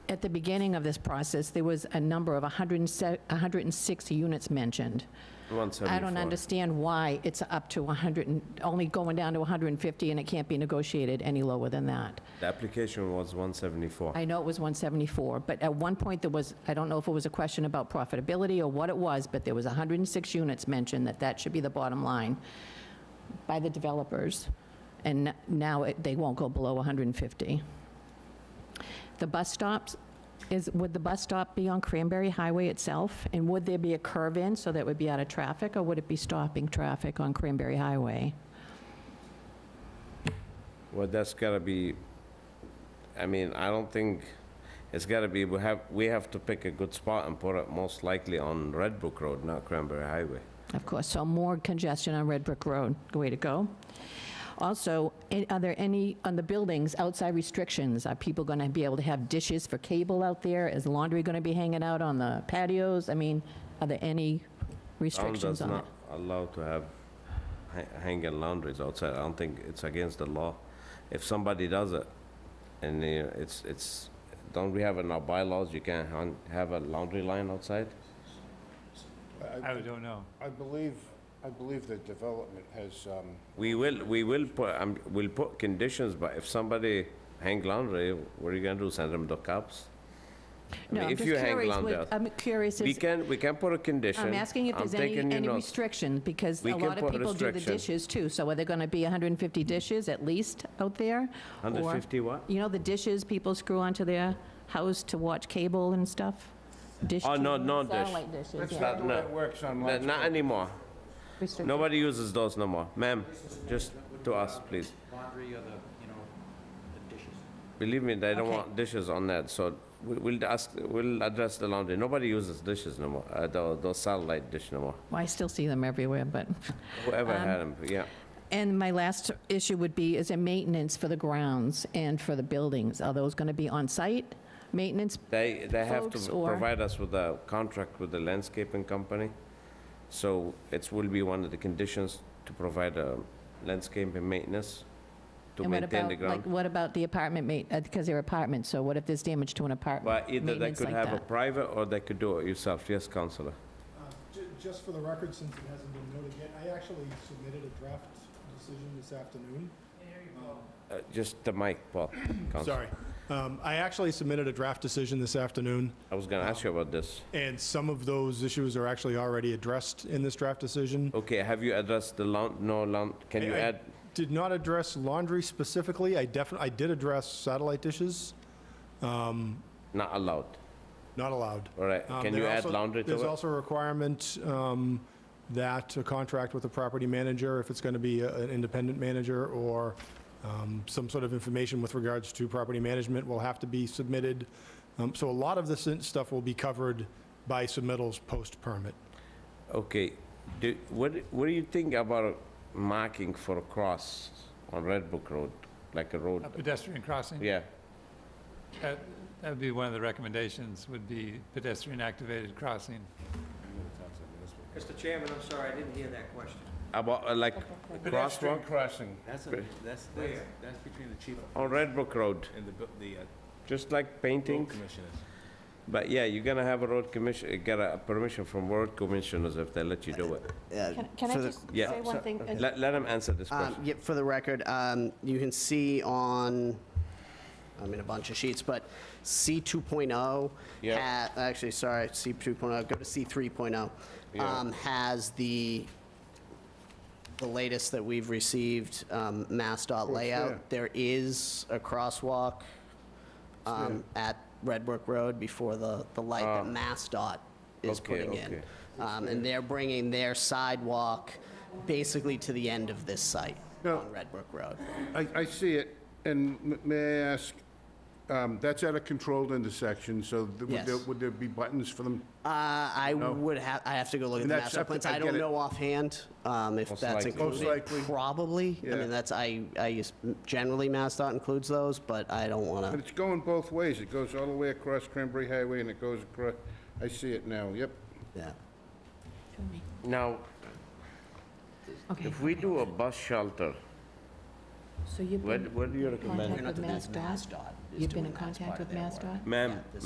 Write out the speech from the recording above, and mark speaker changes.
Speaker 1: at the beginning of this process, there was a number of 106 units mentioned. I don't
Speaker 2: 174.
Speaker 1: understand why it's up to 100, and only going down to 150, and it can't be negotiated any lower than that.
Speaker 2: The application was 174.
Speaker 1: I know it was 174, but at one point, there was, I don't know if it was a question about profitability or what it was, but there was 106 units mentioned, that that should be the bottom line by the developers, and n- now it- they won't go below 150. The bus stops, is, would the bus stop be on Cranberry Highway itself? And would there be a curve in so that would be out of traffic, or would it be stopping traffic on Cranberry Highway?
Speaker 2: Well, that's gotta be, I mean, I don't think, it's gotta be, we have, we have to pick a good spot and put it most likely on Red Brook Road, not Cranberry Highway.
Speaker 1: Of course, so more congestion on Red Brick Road, way to go. Also, a- are there any, on the buildings, outside restrictions? Are people going to be able to have dishes for cable out there? Is laundry going to be hanging out on the patios? I mean, are there any
Speaker 2: Town does
Speaker 1: restrictions on it?
Speaker 2: not allow to have ha- hanging laundries outside. I don't think it's against the law. If somebody does it, and uh, it's, it's, don't we have in our bylaws, you can't hang- have a laundry line outside?
Speaker 3: I don't know.
Speaker 4: I believe, I believe the development has, um,
Speaker 2: We will, we will put, um, we'll put conditions, but if somebody hang laundry, what are you gonna do, send them the cops? I
Speaker 1: No,
Speaker 2: mean,
Speaker 1: I'm
Speaker 2: if
Speaker 1: just
Speaker 2: you hang
Speaker 1: curious
Speaker 2: around
Speaker 1: what-
Speaker 2: there,
Speaker 1: I'm curious,
Speaker 2: We
Speaker 1: is-
Speaker 2: can, we can put a condition.
Speaker 1: I'm asking if
Speaker 2: I'm
Speaker 1: there's any,
Speaker 2: taking your
Speaker 1: any
Speaker 2: notes.
Speaker 1: restriction, because
Speaker 2: We
Speaker 1: a
Speaker 2: can
Speaker 1: lot of
Speaker 2: put
Speaker 1: people do the
Speaker 2: restriction.
Speaker 1: dishes too. So are there going to be 150 dishes at least out there? Or-
Speaker 2: 150 what?
Speaker 1: You know, the dishes people screw onto their house to watch cable and stuff? Dish
Speaker 2: Oh, no,
Speaker 1: TV,
Speaker 2: no dish.
Speaker 1: Satellite dishes,
Speaker 4: that's
Speaker 1: yeah.
Speaker 4: not the way
Speaker 2: no.
Speaker 4: it works on
Speaker 2: Not
Speaker 4: Lions
Speaker 2: not anymore.
Speaker 1: Restricted.
Speaker 2: Nobody uses those no more. Ma'am, just to us, please.
Speaker 5: laundry or the, you know, the dishes.
Speaker 2: Believe me, they don't
Speaker 1: Okay.
Speaker 2: want dishes on that, so we- we'll ask, we'll address the laundry. Nobody uses dishes no more, uh, tho- those satellite dish no more.
Speaker 1: Well, I still see them everywhere, but,
Speaker 2: Whoever
Speaker 1: Um,
Speaker 2: had them, yeah.
Speaker 1: and my last issue would be, is a maintenance for the grounds and for the buildings? Are those going to be on-site maintenance?
Speaker 2: They, they have
Speaker 1: folks
Speaker 2: to
Speaker 1: or-
Speaker 2: provide us with a contract with the landscaping company. So it will be one of the conditions to provide a landscaping maintenance to
Speaker 1: And what
Speaker 2: maintain the
Speaker 1: about, like,
Speaker 2: ground.
Speaker 1: What about the apartment ma, because they're apartments, so what if there's damage to an apartment?
Speaker 2: But either they
Speaker 1: maintenance
Speaker 2: could
Speaker 1: like
Speaker 2: have a
Speaker 1: that?
Speaker 2: private or they could do it yourself. Yes, Counselor?
Speaker 6: Uh, ju- Just for the record, since it hasn't been noted yet, I actually submitted a draft decision this afternoon.
Speaker 2: Uh, Just the mic, Paul. Counselor.
Speaker 6: Sorry. Um, I actually submitted a draft decision this afternoon,
Speaker 2: I was gonna ask you about this.
Speaker 6: and some of those issues are actually already addressed in this draft decision.
Speaker 2: Okay, have you addressed the lawn, no lawn, Oh, can you
Speaker 6: I- I
Speaker 2: add?
Speaker 6: Did not address laundry specifically. I definitely, I did address satellite dishes,
Speaker 2: Not allowed,
Speaker 6: not allowed.
Speaker 2: all right.
Speaker 6: Um,
Speaker 2: Can
Speaker 6: there
Speaker 2: you add
Speaker 6: also-
Speaker 2: laundry
Speaker 6: There's
Speaker 2: to it?
Speaker 6: also a requirement um, that a contract with a property manager, if it's going to be a- an independent manager or um, some sort of information with regards to property management will have to be submitted. Um, So a lot of this in- stuff will be covered by submittals post-permit.
Speaker 2: Okay, do, what, what do you think about marking for a cross on Red Book Road? Like a road,
Speaker 3: A pedestrian crossing?
Speaker 2: yeah,
Speaker 3: That that would be one of the recommendations, would be pedestrian-activated crossing.
Speaker 5: Mr. Chairman, I'm sorry, I didn't hear that question.
Speaker 2: about uh, like
Speaker 7: Pedestrian
Speaker 2: crosswalk
Speaker 7: crossing.
Speaker 8: That's, a-
Speaker 2: Great.
Speaker 8: that's, that's,
Speaker 5: Where?
Speaker 8: that's between the chief
Speaker 2: on Red Book Road,
Speaker 8: and the, bu- the uh,
Speaker 2: just like
Speaker 8: road
Speaker 2: painting.
Speaker 8: commissioners.
Speaker 2: But yeah, you're gonna have a road commission, uh, get a permission from road commissioners if they let you do it.
Speaker 1: Can- Can I
Speaker 9: Uh, for the-
Speaker 1: just
Speaker 2: Yeah.
Speaker 1: say one thing?
Speaker 2: Let, let them answer
Speaker 8: Ah.
Speaker 2: this
Speaker 9: Um,
Speaker 2: question.
Speaker 9: yeah, for the record, um, you can see on, I mean, a bunch of sheets, but C 2.0.
Speaker 2: Yeah.
Speaker 9: ha- Actually, sorry, C 2.0, go to C 3.0.
Speaker 2: Yeah.
Speaker 9: um, Has the, the latest that we've received, um, Mass dot layout. There is a crosswalk, um, at Red Brook Road before the, the light that Mass dot is
Speaker 2: Ah. Okay,
Speaker 9: putting
Speaker 2: okay.
Speaker 9: in. Um, And they're bringing their sidewalk basically to the end of this site
Speaker 7: Yeah.
Speaker 9: on Red Brook Road.
Speaker 7: I, I see it, and m- may I ask, um, that's at a controlled intersection, so th- would there,
Speaker 9: Yes.
Speaker 7: would there be buttons for them?
Speaker 9: Uh, I would have, I have to go look at
Speaker 7: And
Speaker 9: the
Speaker 7: that's
Speaker 9: master
Speaker 7: up to-
Speaker 9: plans.
Speaker 7: I
Speaker 9: I
Speaker 7: get
Speaker 9: don't
Speaker 7: it.
Speaker 9: know offhand um, if
Speaker 2: Most
Speaker 9: that's
Speaker 2: likely. Most
Speaker 9: included.
Speaker 7: likely.
Speaker 9: Probably. I
Speaker 7: Yeah.
Speaker 9: mean, that's, I, I use, generally MassDOT includes those, but I don't
Speaker 7: But
Speaker 9: want
Speaker 7: it's going both ways, it goes all the way across Cranberry Highway and it goes across, I see it now, yep.
Speaker 9: to, yeah.
Speaker 2: Now,
Speaker 1: Okay,
Speaker 2: if we do a bus shelter,
Speaker 1: so you've
Speaker 2: what,
Speaker 1: been
Speaker 2: what do you recommend?
Speaker 1: Contact with
Speaker 9: That's
Speaker 1: MassDOT?
Speaker 9: MassDOT
Speaker 1: You've
Speaker 9: is
Speaker 1: been
Speaker 9: doing
Speaker 1: in
Speaker 9: that as
Speaker 1: contact
Speaker 9: part of
Speaker 1: with
Speaker 9: their work.
Speaker 1: MassDOT?
Speaker 2: Ma'am,